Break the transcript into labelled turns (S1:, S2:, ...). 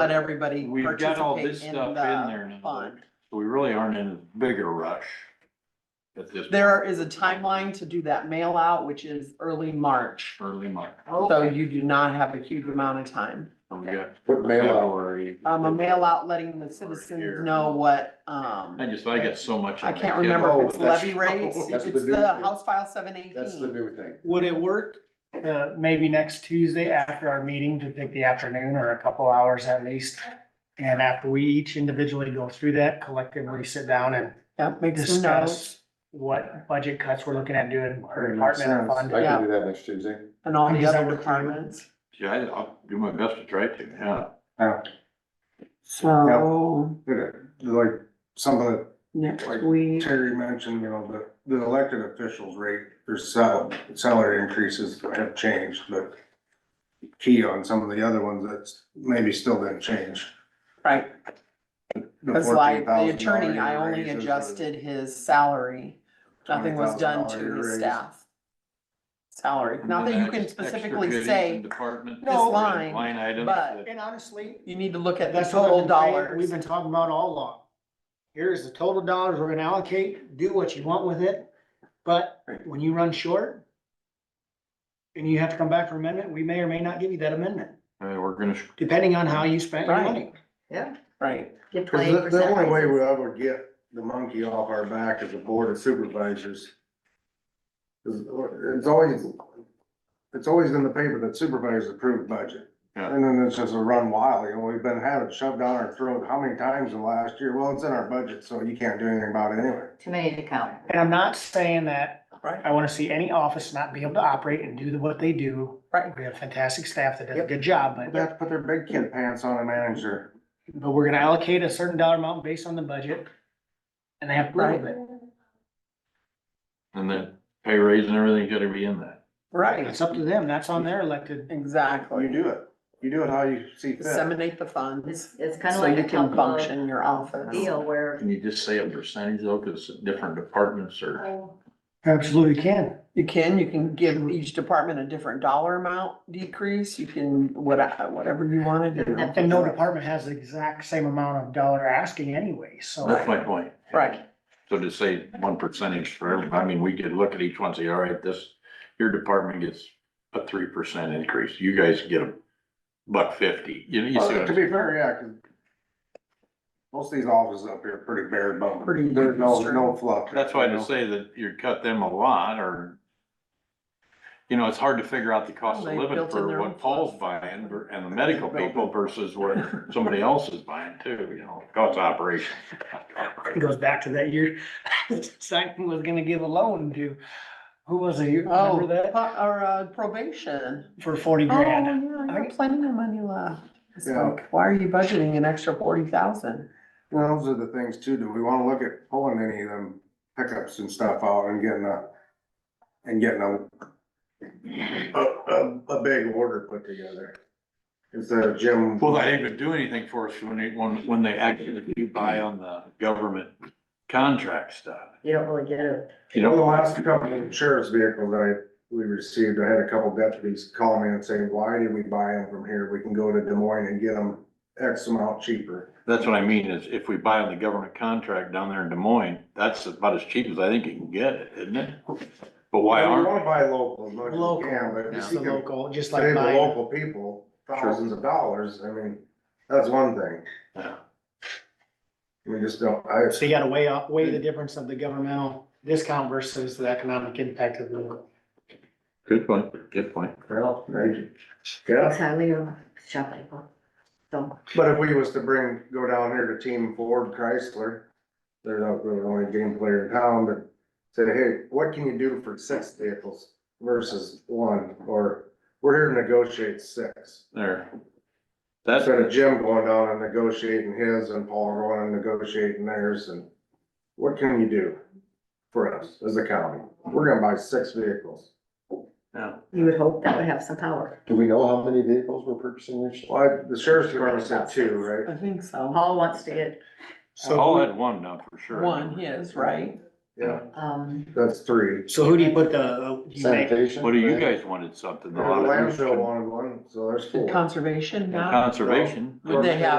S1: let everybody
S2: We've got all
S1: participate
S2: this
S1: in
S2: stuff in there
S1: the
S2: now.
S1: fund.
S2: So we really aren't in a bigger rush at this.
S1: There
S2: point.
S1: is a timeline to do that mail out, which is early March.
S2: Early March.
S1: So you do not have a huge amount of time.
S2: So we got
S3: What mail out?
S2: February.
S1: Um, a mail out letting the
S2: Here.
S1: citizens know what, um,
S2: I just, I got so much.
S1: I
S2: on my
S1: can't
S2: kid.
S1: remember if it's
S3: Oh, that's-
S1: levy rates,
S3: that's
S1: it's
S3: the new
S1: the
S3: thing.
S1: House File seven
S3: That's the
S1: eighteen.
S3: new thing.
S4: Would it work, uh, maybe next Tuesday after our meeting to pick the afternoon or a couple hours at least? And after we each individually go through that collectively sit down and
S1: Yeah, make some notes
S4: discuss what budget cuts we're looking at doing per
S3: Makes
S4: department
S3: sense.
S4: or fund.
S3: I
S1: Yeah.
S3: can do that next Tuesday.
S1: and all the
S4: Does that
S1: other
S4: work for you?
S1: departments.
S2: Yeah, I- I'll do my best to try to, yeah.
S3: Yeah,
S1: So
S3: like something
S1: next
S3: Like-
S1: week,
S3: Terry mentioned, you know, the, the elected officials rate, their salary, salary increases have changed, but key on some of the other ones that's maybe still didn't change.
S1: right,
S3: The
S1: Cause like the
S3: $14,000
S1: attorney, I only
S3: raises or the
S1: adjusted his salary. Nothing was done to
S3: $20,000
S1: his
S3: raise.
S1: staff. Salary, not that you can
S2: Extra
S1: specifically
S2: goodies
S1: say,
S2: and Department.
S1: this
S2: and
S1: line,
S2: Line items.
S1: but-
S2: that-
S4: And honestly,
S1: you need to look at the
S4: what I've
S1: total
S4: been saying, We've
S1: dollars.
S4: been talking about all along. Here's the total dollars we're gonna allocate, do what you want with it, but when you run short. And you have to come back for amendment, we may or may not give you that amendment,
S2: Hey, uh, we're gonna, sh-
S4: depending on how you spent your
S1: Right.
S4: money. Yeah.
S1: Right,
S5: Give
S3: Cause the, the
S5: 20%
S3: only way
S5: raises.
S3: we ever get the monkey off our back is the board of supervisors. 'Cause It's always, it's always in the paper that supervisors approve budget.
S2: Yeah.
S3: And then it's just a run wild, you know, we've been having shoved down our throat how many times in the last year? Well, it's in our budget, so you can't do anything about it anyway.
S5: Too many to count.
S4: And I'm not saying that,
S1: right,
S4: I wanna see any office not be able to operate and do the- what they do.
S1: Right.
S4: We have fantastic staff that does a good job,
S3: They
S4: but,
S3: have to put their big kid pants on and manage their,
S4: but we're gonna allocate a certain dollar amount based on the budget. And they have to live with it.
S2: and then pay raise and everything's gotta be in that.
S1: right,
S4: It's up to them, that's on their elected
S3: you
S1: exactly.
S3: do it. You do it how you see fit.
S1: Disseminate the funds,
S5: It's, it's kind of
S1: so
S5: like
S1: you
S5: a
S1: can
S5: couple
S1: function your
S5: of
S1: office.
S5: deal where,
S2: Can you just say a percentage though, cause different departments are,
S4: Absolutely can.
S1: You can, you can give each department a different dollar amount decrease, you can, what, whatever you wanna do,
S4: And no department has the exact same amount of dollar asking anyway, so.
S2: that's my point.
S1: right,
S2: So to say one percentage for every, I mean, we could look at each one, and say, all right, this, your department gets a three percent increase, you guys get a buck fifty, you know, you see
S3: Uh,
S2: what
S3: To
S2: I'm
S3: be fair, yeah, 'cause most of these offices up here are pretty bare bones.
S1: Pretty-
S3: There's no, no fluff.
S2: That's why
S3: you know?
S2: to say that you cut them a lot, or, you know, it's hard to figure out the cost
S1: Well,
S2: of
S1: they
S2: living
S1: built in their
S2: for
S1: own
S2: what Paul's buying ver- and the medical people versus what somebody else is buying too, you know, cost of operation.
S4: It goes back to that year, Simon was gonna give a loan to, who was it, you
S1: oh,
S4: remember that?
S1: pu- or uh, probation.
S4: For forty
S1: Oh, yeah,
S4: grand.
S1: you
S4: I-
S1: got plenty of money left. It's
S3: Yeah.
S1: like, why are you budgeting an extra forty thousand?
S3: Well, Those are the things too, do we wanna look at pulling any of them pickups and stuff out and getting a, and getting a, a, a, a big order put together? Instead of Jim.
S2: Well, they didn't even do anything for us when they, when, when they actually do buy on the government contract stuff.
S5: you don't really get it.
S2: You
S3: Over the
S2: know,
S3: last couple of sheriff's vehicles that I, we received, I had a couple deputies call me and say, why did we buy them from here? We can go to Des Moines and get them X amount cheaper.
S2: that's what I mean, is if we buy on the government contract down there in Des Moines, that's about as cheap as I think you can get it, isn't it? But why
S3: You
S2: aren't?
S3: wanna buy local as much as you can,
S4: Local,
S3: but
S4: it's
S3: if
S4: the
S3: you can
S4: local, just like
S3: save the
S4: mine.
S3: local people thousands of dollars, I mean, that's one thing.
S2: Yeah.
S3: We just don't, I,
S4: So you gotta weigh up, weigh the difference of the governmental discount versus the economic impact of the.
S2: Good point, good point.
S3: well, I- yeah,
S5: It's highly of shop people. So,
S3: but if we was to bring, go down here to Team Ford Chrysler, they're not really the only game player in town, but say, hey, what can you do for six vehicles versus one? Or we're here to negotiate six.
S2: There. That's,
S3: Instead of Jim going down and negotiating his and Paul going and negotiating theirs and what can you do for us as a county? We're gonna buy six vehicles.
S2: yeah,
S5: you would hope that would have some power.
S6: Do we know how many vehicles we're purchasing this year?
S3: Well, I- the sheriff's department said two, right?
S1: I think so.
S5: Paul wants to get,
S2: Paul had one now for sure.
S1: One his, right?
S3: yeah,
S5: um,
S3: that's three.
S4: So who do you put the, uh, do you make,
S6: Sanitation.
S2: What do you
S6: right?
S2: guys wanted something?
S3: The
S2: a lot of-
S3: landfill wanted one, so there's four.
S1: Conservation,
S2: And
S1: now.
S2: Conservation.
S1: They have